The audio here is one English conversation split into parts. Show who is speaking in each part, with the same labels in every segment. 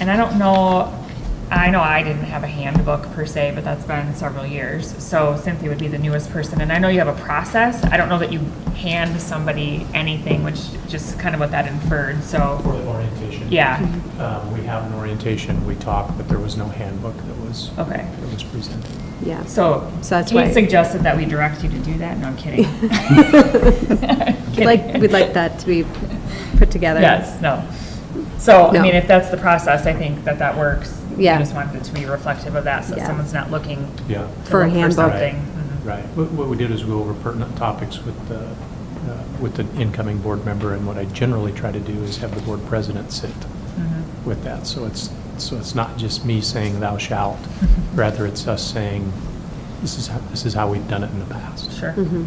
Speaker 1: And I don't know, I know I didn't have a handbook per se, but that's been several years. So Cynthia would be the newest person, and I know you have a process. I don't know that you hand somebody anything, which just kind of what that inferred, so,
Speaker 2: For the orientation.
Speaker 1: yeah,
Speaker 3: Mm-hmm.
Speaker 2: Um, We have an orientation, we talk, but there was no handbook that was,
Speaker 1: okay.
Speaker 2: that was presented.
Speaker 3: Yeah.
Speaker 1: So,
Speaker 3: So that's
Speaker 1: Kate
Speaker 3: why-
Speaker 1: suggested that we direct you to do that, no, I'm kidding.
Speaker 3: We'd like, we'd like that to be put together.
Speaker 1: Yes, no. So, I
Speaker 3: No.
Speaker 1: mean, if that's the process, I think that that works. We
Speaker 3: Yeah.
Speaker 1: just wanted it to be reflective of that, so
Speaker 3: Yeah.
Speaker 1: someone's not looking
Speaker 2: Yeah,
Speaker 1: to
Speaker 3: For a
Speaker 1: look
Speaker 3: handbook.
Speaker 1: something. Mhm.
Speaker 2: right. What what we did is go over pertinent topics with the, uh, with the incoming board member, and what I generally try to do is have the board president sit
Speaker 1: Mhm.
Speaker 2: with that. So it's, so it's not just me saying thou shalt, rather it's us saying, this is, how this is how we've done it in the past.
Speaker 1: Mm-hmm. Sure.
Speaker 3: Mhm.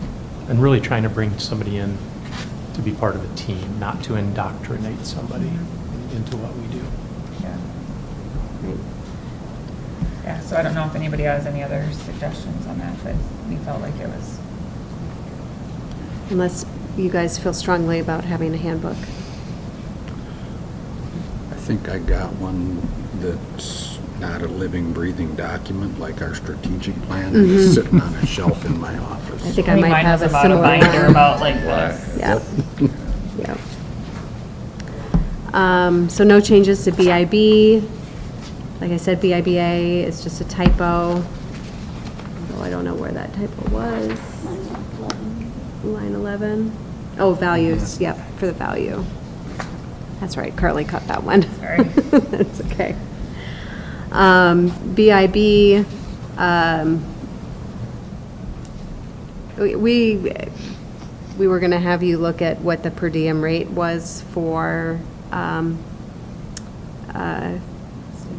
Speaker 2: And really trying to bring somebody in to be part of a team, not to indoctrinate somebody into what we do.
Speaker 1: Yeah.
Speaker 3: Right.
Speaker 1: Yeah, so I don't know if anybody has any other suggestions on that, but we felt like it was,
Speaker 3: Unless you guys feel strongly about having a handbook.
Speaker 4: I think I got one that's not a living, breathing document like our strategic plan
Speaker 3: Mhm.
Speaker 4: is sitting on a shelf in my office.
Speaker 3: I think
Speaker 1: I
Speaker 3: I
Speaker 1: think
Speaker 3: might
Speaker 1: mine
Speaker 3: have
Speaker 1: was
Speaker 3: a
Speaker 1: about a
Speaker 3: similar one.
Speaker 1: binder about like
Speaker 4: Why?
Speaker 1: this.
Speaker 3: Yeah. Yeah. Um, So no changes to BIB. Like I said, BIBA is just a typo, although I don't know where that typo was. Line 11. Oh, values, yep, for the value. That's right, Carly cut that one.
Speaker 1: Sorry.
Speaker 3: That's okay. Um, BIB, um, we- We, we were going to have you look at what the per diem rate was for um, uh,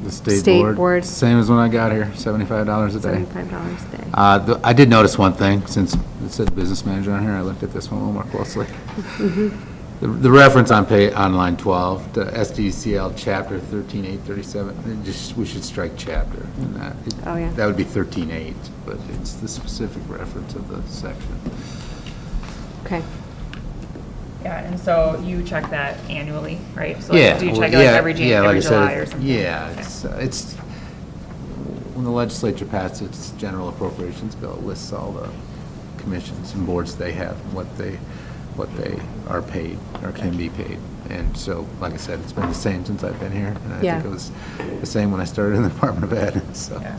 Speaker 5: The state board.
Speaker 3: State board.
Speaker 5: Same as when I got here, seventy-five dollars a day.
Speaker 3: $75 a day.
Speaker 5: Uh, th- I did notice one thing, since it said business manager on here, I looked at this one a little more closely.
Speaker 3: Mm-hmm.
Speaker 5: The the reference on pay, on line 12, the SDCL chapter 13837, it just, we should strike chapter in that. It-
Speaker 3: Oh, yeah.
Speaker 5: That would be 138, but it's the specific reference of the section.
Speaker 3: Okay,
Speaker 1: Yeah, and so you check that annually, right? So like,
Speaker 5: Yeah.
Speaker 1: Do you
Speaker 5: well,
Speaker 1: check it like
Speaker 5: yeah,
Speaker 1: every Jan,
Speaker 5: yeah, like
Speaker 1: every
Speaker 5: I said,
Speaker 1: July
Speaker 5: it-
Speaker 1: or something?
Speaker 5: Yeah,
Speaker 1: Okay.
Speaker 5: it's, uh, it's, when the legislature passed its general appropriations bill, it lists all the commissions and boards they have, what they, what they are paid or can be paid. And so, like I said, it's been the same since I've been here. And I
Speaker 3: Yeah.
Speaker 5: think it was the same when I started in the Department of Ed, so.
Speaker 1: Yeah.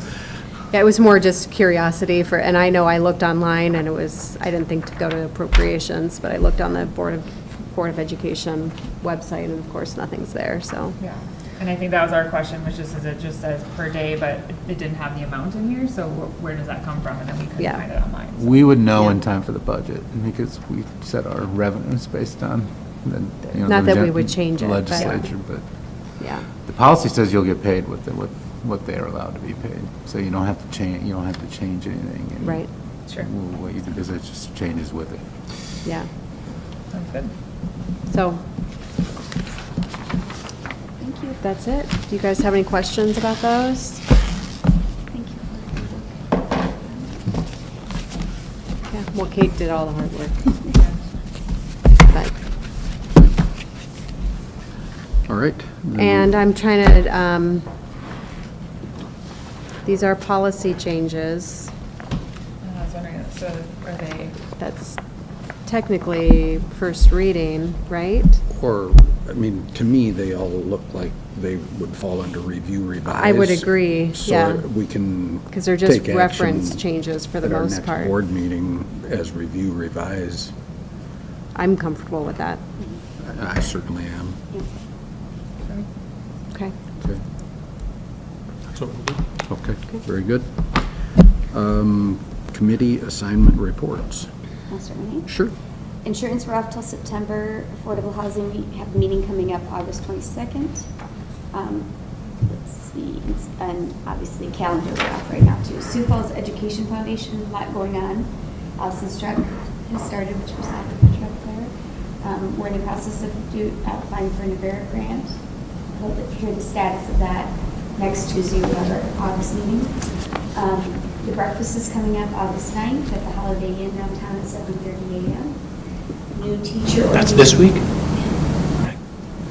Speaker 3: yeah, it was more just curiosity for, and I know I looked online and it was, I didn't think to go to appropriations, but I looked on the Board of, Board of Education website and of course, nothing's there, so.
Speaker 1: Yeah, and I think that was our question, which is, is it just says per day, but it didn't have the amount in here, so wh- where does that come from? And then we couldn't
Speaker 3: Yeah.
Speaker 1: find it online. so-
Speaker 5: We would know in
Speaker 3: Yeah.
Speaker 5: time for the budget because we set our revenues based on the, you know.
Speaker 3: Not
Speaker 5: the
Speaker 3: that we
Speaker 5: gen-
Speaker 3: would change it, but-
Speaker 5: Legislature, but.
Speaker 3: Yeah,
Speaker 5: The policy says you'll get paid what, the- what, what they are allowed to be paid, so you don't have to change, you don't have to change anything. and
Speaker 3: Right.
Speaker 1: Sure.
Speaker 5: wh- What you do is it just changes with it.
Speaker 3: yeah,
Speaker 1: Sounds good.
Speaker 3: so. Thank you. That's it. Do you guys have any questions about those?
Speaker 6: Thank you.
Speaker 3: Yeah, well, Kate did all the hard work, but,
Speaker 4: All right. then
Speaker 3: and I'm trying to, um, these are policy changes.
Speaker 1: And I was wondering, so are they,
Speaker 3: That's technically first reading, right?
Speaker 4: Or, I mean, to me, they all look like they would fall under review revised.
Speaker 3: I would agree, yeah.
Speaker 4: So we can.
Speaker 3: Because they're just
Speaker 4: take action
Speaker 3: reference changes for the most
Speaker 4: At our
Speaker 3: part.
Speaker 4: next board meeting as review revised.
Speaker 3: I'm comfortable with that.
Speaker 4: I certainly am.
Speaker 3: Okay.
Speaker 4: Okay.
Speaker 2: So
Speaker 4: Okay, very good. Um, Committee assignment reports.
Speaker 6: Mr. Rooney?
Speaker 4: Sure.
Speaker 6: Insurance, we're off till September. Affordable housing, we have a meeting coming up August 22nd. Um, Let's see, it's- and obviously calendar we're off right now too. Sioux Falls Education Foundation, a lot going on. Allison Struck has started, which was out of the truck there. Um, We're in the process of do- applying for an Avera grant. Hope to hear the status of that next Tuesday, we have our August meeting. Um, The breakfast is coming up August 9th at the Holiday Inn downtown at 7:30 a.m. New teacher.
Speaker 2: That's this week?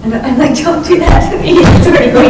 Speaker 6: I'm I'm like, don't do that to me. It's already going